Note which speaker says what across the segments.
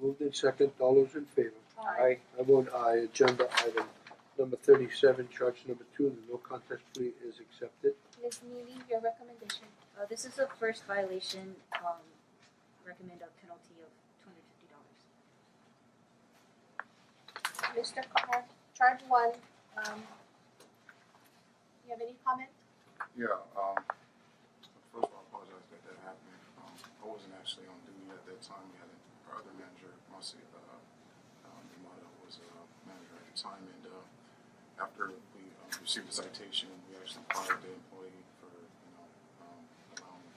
Speaker 1: Moved in second, all those in favor?
Speaker 2: Aye.
Speaker 1: I vote aye, agenda item number thirty-seven, charge number two, the no contest plea is accepted.
Speaker 2: Ms. Neely, your recommendation.
Speaker 3: Uh, this is the first violation, um, recommend a penalty of two hundred
Speaker 2: Mr.
Speaker 3: fifty dollars.
Speaker 2: Carr, charge one, um, you have any comment?
Speaker 4: Yeah, um, first of all, I apologize that that happened. Um, I wasn't actually on duty at that time. We had our other manager, Marcy, uh, um, Yamada was, uh, manager at the time. And, uh, after we um, received the citation, we actually fired the employee for, you know, um, allowing,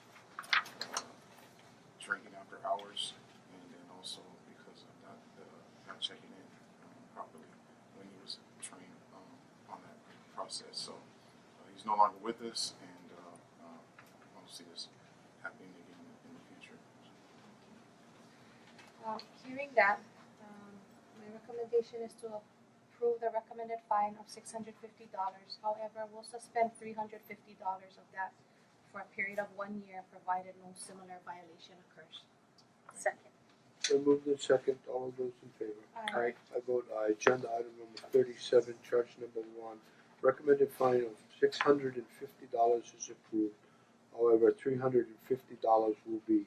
Speaker 4: uh, drinking after hours. And then also because of not, uh, not checking in um, properly when he was trained, um, on that process. So, uh, he's no longer with us, and uh, uh, I don't see this happening again in the future.
Speaker 2: Um, hearing that, um, my recommendation is to approve the recommended fine of six hundred fifty dollars. However, we'll suspend three hundred fifty dollars of that for a period of one year, provided no similar violation occurs.
Speaker 3: Second.
Speaker 1: Then moved in second, all of those in favor?
Speaker 2: Aye.
Speaker 1: I vote aye, agenda item number thirty-seven, charge number one, recommended fine of six hundred and fifty dollars is approved. However, three hundred and fifty dollars will be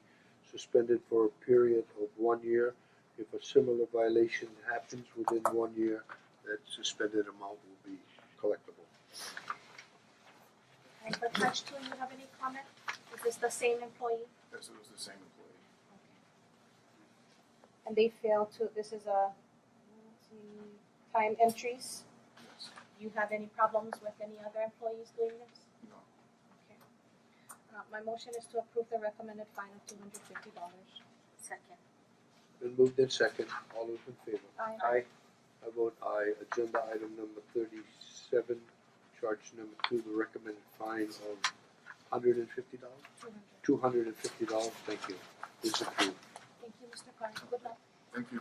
Speaker 1: suspended for a period of one year. If a similar violation happens within one year, that suspended amount will be collectible.
Speaker 2: And for charge two, you have any comment? Is this the same employee?
Speaker 4: Yes, it was the same employee.
Speaker 2: And they fail to, this is a, let's see, time entries.
Speaker 4: Yes.
Speaker 2: Do you have any problems with any other employees doing this?
Speaker 4: No.
Speaker 2: Okay. Uh, my motion is to approve the recommended fine of two hundred fifty dollars.
Speaker 3: Second.
Speaker 1: Then moved in second, all those in favor?
Speaker 2: Aye.
Speaker 1: I vote aye, agenda item number thirty-seven, charge number two, the recommended fine of hundred and fifty dollars?
Speaker 2: Two hundred.
Speaker 1: Two hundred and fifty dollars, thank you, is approved.
Speaker 2: Thank you, Mr. Carr. Good luck.
Speaker 4: Thank you.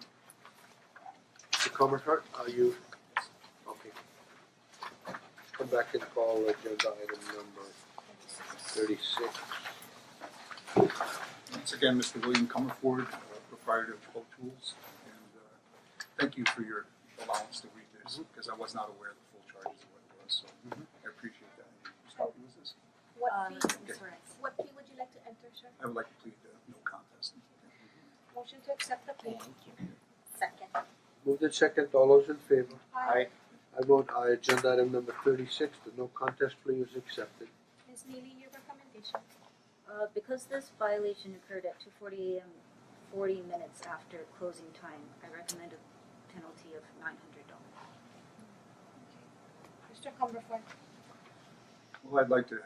Speaker 1: Mr. Comerford, are you? Okay. Come back and call agenda item number thirty-six.
Speaker 5: Once again, Mr. William Comerford, uh, proprietor of Pro Tools, and uh, thank you for your allowance to read this, because I was not aware of the full charges of what it was, so I appreciate that. Whose copy was this?
Speaker 2: What
Speaker 3: Uh,
Speaker 2: fee,
Speaker 3: Ms. Perez.
Speaker 2: what fee would you like to enter, sir?
Speaker 5: I would like to plead the no contest.
Speaker 2: Motion to accept the plea.
Speaker 3: Second.
Speaker 1: Moved in second, all those in favor?
Speaker 2: Aye.
Speaker 1: I vote aye, agenda item number thirty-six, the no contest plea is accepted.
Speaker 2: Ms. Neely, your recommendation.
Speaker 3: Uh, because this violation occurred at two forty AM, forty minutes after closing time, I recommend a penalty of nine hundred dollars.
Speaker 2: Mr. Cumberford.
Speaker 5: Well, I'd like to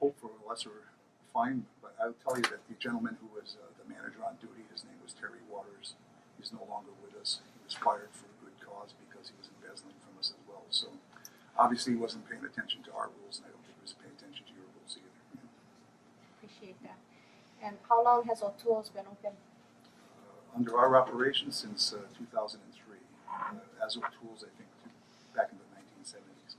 Speaker 5: hope for a lesser fine, but I'll tell you that the gentleman who was uh, the manager on duty, his name was Terry Waters, he's no longer with us. He was fired for a good cause because he was embezzling from us as well. So obviously, he wasn't paying attention to our rules, and I don't think he was paying attention to your rules either.
Speaker 2: Appreciate that. And how long has O'Toole's been open?
Speaker 5: Uh, under our operation since uh, 2003, uh, as of tools, I think, to, back in the 1970s,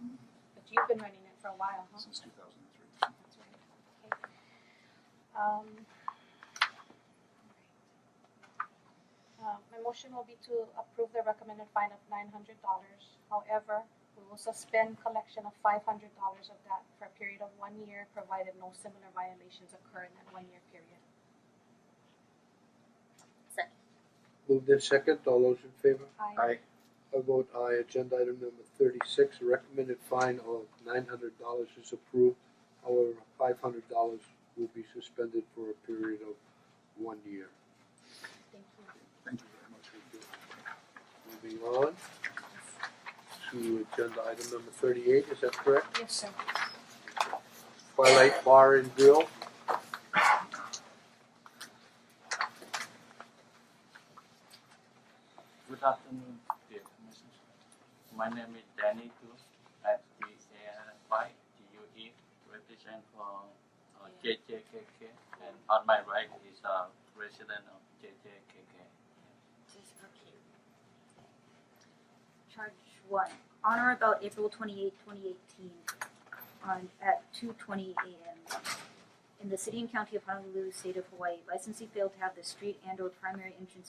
Speaker 2: But you've been running it for a while, huh?
Speaker 5: since 2003.
Speaker 2: That's right. Okay. Um. alright. Uh, my motion will be to approve the recommended fine of nine hundred dollars. However, we will suspend collection of five hundred dollars of that for a period of one year, provided no similar violations occur in that one-year period.
Speaker 3: Second.
Speaker 1: Moved in second, all those in favor?
Speaker 2: Aye.
Speaker 1: I vote aye, agenda item number thirty-six, recommended fine of nine hundred dollars is approved. However, five hundred dollars will be suspended for a period of one year.
Speaker 2: Thank you.
Speaker 5: Thank you very much.
Speaker 1: Moving on to agenda item number thirty-eight, is that correct?
Speaker 2: Yes, sir.
Speaker 1: Twilight Bar and Grill,
Speaker 6: Good afternoon, dear commissioners. My name is Danny Du, at the ANY DUE, E, represent for uh, JJKK, and on my right is a resident of JJKK.
Speaker 3: Just okay. Charge one, on or about April twenty-eight, twenty eighteen, on, at two twenty AM. In the city and county of Honolulu, state of Hawaii, licensee failed to have the street and or primary entrances